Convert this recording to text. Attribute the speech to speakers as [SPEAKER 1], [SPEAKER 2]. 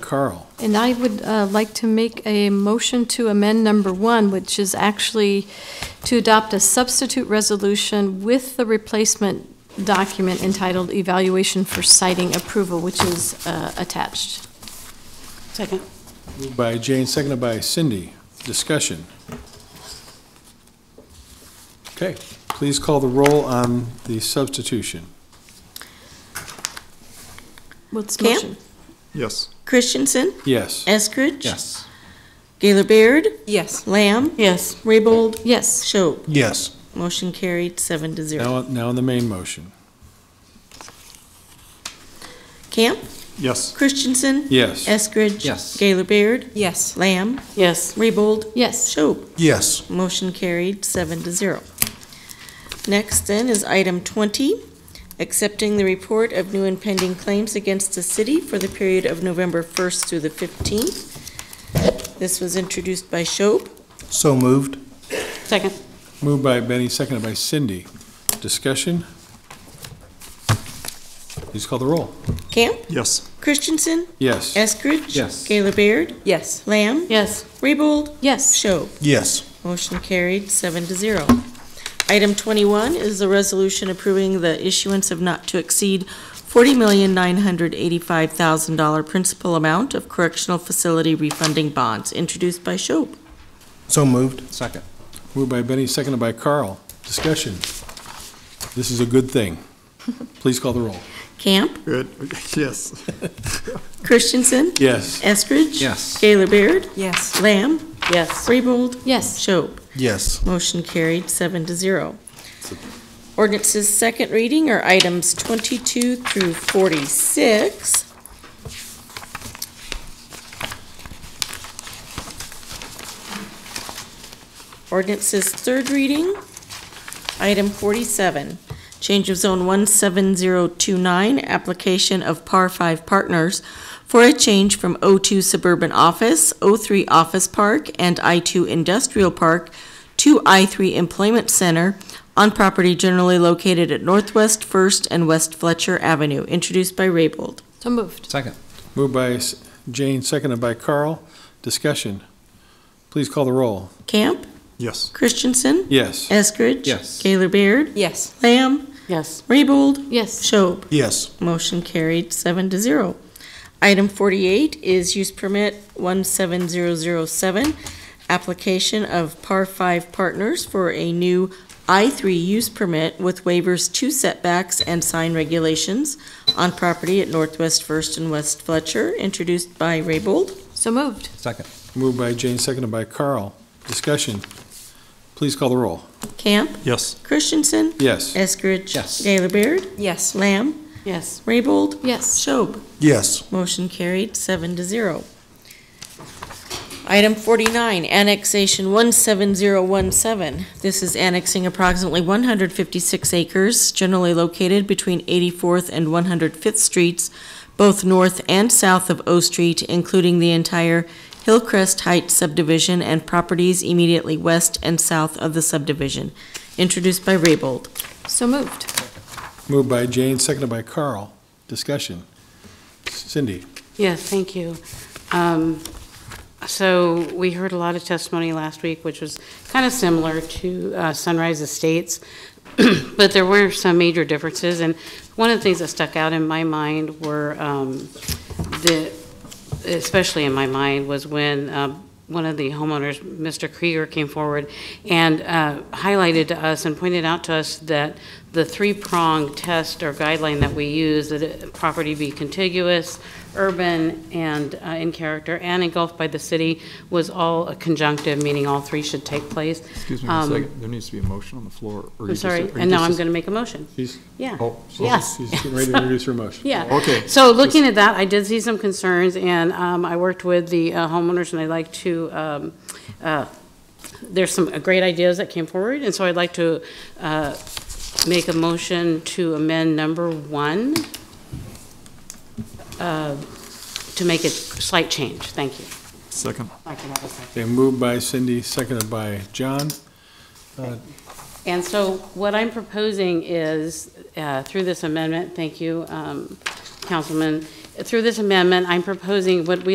[SPEAKER 1] Carl.
[SPEAKER 2] And I would uh, like to make a motion to amend number one, which is actually to adopt a substitute resolution with the replacement document entitled Evaluation for Citing Approval, which is uh, attached.
[SPEAKER 3] Second.
[SPEAKER 1] Moved by Jane, seconded by Cindy. Discussion. Okay, please call the roll on the substitution.
[SPEAKER 2] What's the
[SPEAKER 3] Camp?
[SPEAKER 2] motion?
[SPEAKER 4] Yes.
[SPEAKER 3] Christensen,
[SPEAKER 1] Yes.
[SPEAKER 3] Eskridge.
[SPEAKER 4] Yes.
[SPEAKER 3] Gaylor Baird,
[SPEAKER 5] Yes.
[SPEAKER 3] Lamb. Yes. Raybold,
[SPEAKER 2] Yes.
[SPEAKER 3] Schob.
[SPEAKER 4] Yes.
[SPEAKER 3] Motion carried, seven to zero.
[SPEAKER 1] Now, now on the main motion.
[SPEAKER 3] Camp,
[SPEAKER 4] Yes.
[SPEAKER 3] Christensen.
[SPEAKER 1] Yes.
[SPEAKER 3] Eskridge.
[SPEAKER 4] Yes.
[SPEAKER 3] Gaylor Baird,
[SPEAKER 5] Yes.
[SPEAKER 3] Lamb,
[SPEAKER 5] Yes.
[SPEAKER 3] Raybold,
[SPEAKER 2] Yes.
[SPEAKER 3] Schob.
[SPEAKER 4] Yes.
[SPEAKER 3] Motion carried, seven to zero. Next then is item twenty, accepting the report of new and pending claims against the city for the period of November first through the fifteenth. This was introduced by Schob.
[SPEAKER 4] So moved.
[SPEAKER 5] Second.
[SPEAKER 1] Moved by Benny, seconded by Cindy. Discussion. Please call the roll.
[SPEAKER 3] Camp,
[SPEAKER 4] Yes.
[SPEAKER 3] Christensen,
[SPEAKER 1] Yes.
[SPEAKER 3] Eskridge.
[SPEAKER 4] Yes.
[SPEAKER 3] Gaylor Baird,
[SPEAKER 5] Yes.
[SPEAKER 3] Lamb,
[SPEAKER 5] Yes.
[SPEAKER 3] Raybold,
[SPEAKER 2] Yes.
[SPEAKER 3] Schob.
[SPEAKER 4] Yes.
[SPEAKER 3] Motion carried, seven to zero. Item twenty-one is the resolution approving the issuance of not to exceed forty million nine hundred eighty-five thousand dollar principal amount of correctional facility refunding bonds, introduced by Schob.
[SPEAKER 4] So moved. Second.
[SPEAKER 1] Moved by Benny, seconded by Carl. Discussion. This is a good thing. Please call the roll.
[SPEAKER 3] Camp,
[SPEAKER 4] Good. Yes.
[SPEAKER 3] Christensen,
[SPEAKER 1] Yes.
[SPEAKER 3] Eskridge.
[SPEAKER 4] Yes.
[SPEAKER 3] Gaylor Baird,
[SPEAKER 5] Yes.
[SPEAKER 3] Lamb,
[SPEAKER 5] Yes.
[SPEAKER 3] Raybold,
[SPEAKER 2] Yes.
[SPEAKER 3] Schob.
[SPEAKER 4] Yes.
[SPEAKER 3] Motion carried, seven to zero. Ordinance's second reading are items twenty-two through forty-six. Ordinance's third reading, item forty-seven, change of zone one seven zero two nine, application of par five partners for a change from O two suburban office, O three office park, and I two industrial park to I-3 Employment Center on property generally located at Northwest First and West Fletcher Avenue, introduced by Raybold.
[SPEAKER 2] So moved.
[SPEAKER 4] Second.
[SPEAKER 1] Moved by S- Jane, seconded by Carl. Discussion. Please call the roll.
[SPEAKER 3] Camp,
[SPEAKER 4] Yes.
[SPEAKER 3] Christensen,
[SPEAKER 1] Yes.
[SPEAKER 3] Eskridge.
[SPEAKER 4] Yes.
[SPEAKER 3] Gaylor Baird,
[SPEAKER 5] Yes.
[SPEAKER 3] Lamb,
[SPEAKER 5] Yes.
[SPEAKER 3] Raybold,
[SPEAKER 2] Yes.
[SPEAKER 3] Schob.
[SPEAKER 4] Yes.
[SPEAKER 3] Motion carried, seven to zero. Item forty-eight is use permit one seven zero zero seven, application of par five partners for a new I three use permit with waivers to setbacks and sign regulations on property at Northwest First and West Fletcher, introduced by Raybold.
[SPEAKER 2] So moved.
[SPEAKER 4] Second.
[SPEAKER 1] Moved by Jane, seconded by Carl. Discussion. Please call the roll.
[SPEAKER 3] Camp,
[SPEAKER 4] Yes.
[SPEAKER 3] Christensen,
[SPEAKER 1] Yes.
[SPEAKER 3] Eskridge.
[SPEAKER 4] Yes.
[SPEAKER 3] Gaylor Baird,
[SPEAKER 5] Yes.
[SPEAKER 3] Lamb,
[SPEAKER 5] Yes.
[SPEAKER 3] Raybold,
[SPEAKER 2] Yes.
[SPEAKER 3] Schob.
[SPEAKER 4] Yes.
[SPEAKER 3] Motion carried, seven to zero. Item forty-nine, annexation one seven zero one seven. This is annexing approximately one hundred fifty-six acres generally located between eighty-fourth and one hundred fifth streets, both north and south of O Street, including the entire Hillcrest Heights subdivision and properties immediately west and south of the subdivision, introduced by Raybold.
[SPEAKER 2] So moved.
[SPEAKER 1] Moved by Jane, seconded by Carl. Discussion. Cindy.
[SPEAKER 6] Yes, thank you. Um, So we heard a lot of testimony last week, which was kind of similar to uh, Sunrise Estates, but there were some major differences, and one of the things that stuck out in my mind were um, the, especially in my mind, was when um, one of the homeowners, Mr. Krieger, came forward and uh, highlighted to us and pointed out to us that the three-prong test or guideline that we use, that a property be contiguous, urban, and uh, in character, and engulfed by the city, was all a conjunctive, meaning all three should take place.
[SPEAKER 7] Excuse me one
[SPEAKER 6] Um,
[SPEAKER 7] second, there needs to be a motion on the floor. or you
[SPEAKER 6] I'm
[SPEAKER 7] just- or
[SPEAKER 6] sorry,
[SPEAKER 7] you
[SPEAKER 6] and now
[SPEAKER 7] just-
[SPEAKER 6] I'm going to make a motion.
[SPEAKER 1] She's-
[SPEAKER 6] Yeah.
[SPEAKER 7] Oh, so-
[SPEAKER 6] Yes.
[SPEAKER 1] She's getting ready to introduce her motion.
[SPEAKER 6] Yeah.
[SPEAKER 7] Okay.
[SPEAKER 6] So looking at that, I did see some concerns, and um, I worked with the uh, homeowners, and I'd like to, um, uh, there's some uh, great ideas that came forward, and so I'd like to uh, make a motion to amend number one uh, to make a slight change. Thank you.
[SPEAKER 7] Second.
[SPEAKER 1] Okay, moved by Cindy, seconded by John.
[SPEAKER 6] And so what I'm proposing is, uh, through this amendment, thank you, um, Councilman, through this amendment, I'm proposing what we